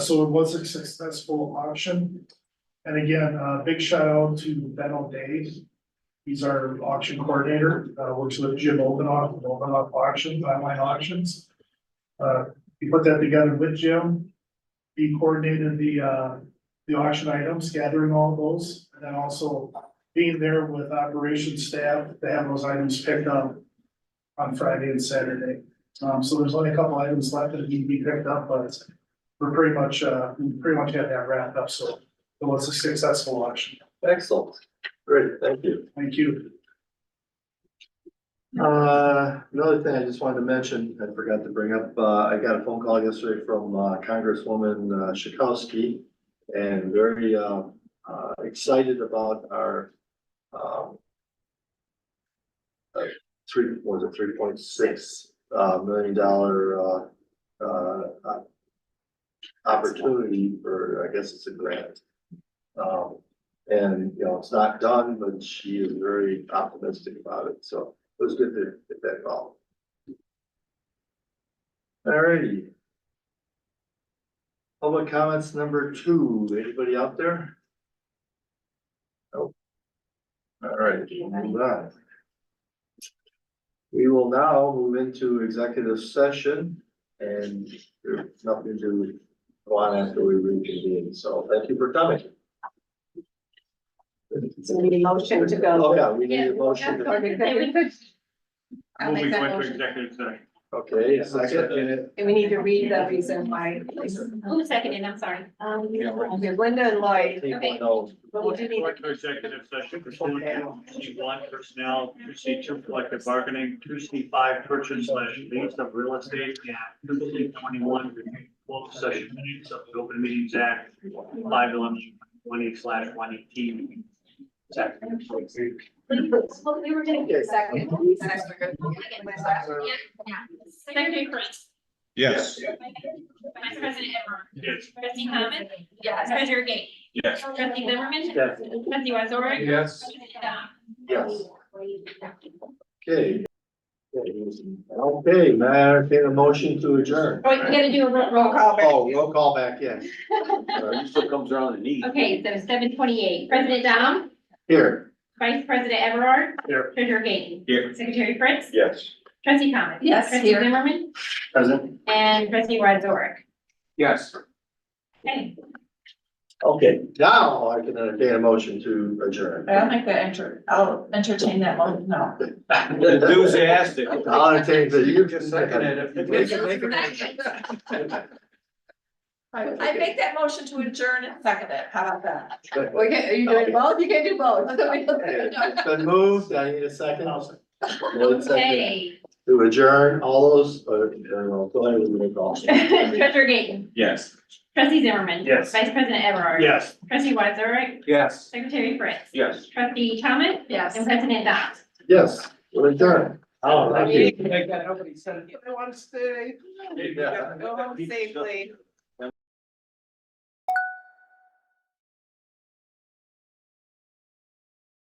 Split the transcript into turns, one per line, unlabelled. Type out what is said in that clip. So it was a successful auction. And again, uh, big shout out to Ben O'Day. He's our auction coordinator, uh, works with Jim Obenoff, of Obenoff Auctions, Online Auctions. Uh, he put that together with Jim. He coordinated the, uh, the auction items, gathering all those, and then also being there with operations staff to have those items picked up on Friday and Saturday. Um, so there's only a couple items left that need to be picked up, but we're pretty much, uh, we pretty much had that wrapped up, so it was a successful election.
Excellent. Great, thank you.
Thank you.
Uh, another thing I just wanted to mention, I forgot to bring up, uh, I got a phone call yesterday from, uh, Congresswoman uh, Schakowsky. And very, uh, uh, excited about our, um. uh, Three, what was it three point six, uh, million dollar, uh, uh. uh, Opportunity for, I guess it's a grant. Um, and, you know, it's not done, but she is very optimistic about it, so it was good to get that call. Alrighty. Public comments number two, anybody out there? Nope. Alright, move on. We will now move into executive session and there's nothing to go on after we reconvene, so thank you for coming.
So we need a motion to go.
Oh, yeah, we need a motion. to-
And I'll make
Moving
that
went to
motion.
executive session.
Okay, a second.
we need to read the reason why.
Who seconded, I'm sorry.
Um, okay, Linda and Lloyd,
Okay.
No.
but we do need,
Going to executive session pursuant to C one personnel, two C two collective bargaining, two C five purchase slash lease of real estate, and two C twenty-one review closed session minutes of the Open Meetings Act, five eleven twenty slash one eighteen. Second.
well, we were taking a second.
Secretary Prince.
Yes.
Vice President Everard.
Yes.
Trustee Thomas.
Yes.
Treasurer Gate.
Yes.
Trustee Zimmerman.
Yes.
Trustee Wazorek.
Yes.
Trustee Dom.
Yes. Okay. Okay, may I entertain a motion to adjourn?
Wait, we Oh, gotta do a ro- roll call.
Oh, roll call back, yes.
He still comes around and eats.
Okay, so seven twenty-eight, President Dom,
Here,
Vice President Everard.
Here.
Treasurer Gate.
Here.
Secretary Prince.
Yes.
Trustee Thomas.
Yes,
Trustee
here.
Zimmerman
Present?
and Trustee Wazorek.
Yes.
Okay.
okay, now I can entertain a motion to adjourn.
I don't think that enter, I'll entertain that one, no.
Enthusiastic.
I'll entertain the.
You can second it if you wish.
I make that motion to adjourn and second it, how about that?
We can, are you doing both? You can do both.
It's been moved, I need a second. One second
Okay.
to adjourn, all those, uh, uh, go ahead with the roll call.
Treasurer Gayton.
Yes.
Trustee Zimmerman.
Yes.
Vice President Everard.
Yes.
Trustee Wazorek.
Yes.
Secretary Fritz.
Yes.
Trustee Thomas.
Yes.
And President Dom.
Yes, we're adjourned. Oh,
thank
I want to stay,
Go
home safely.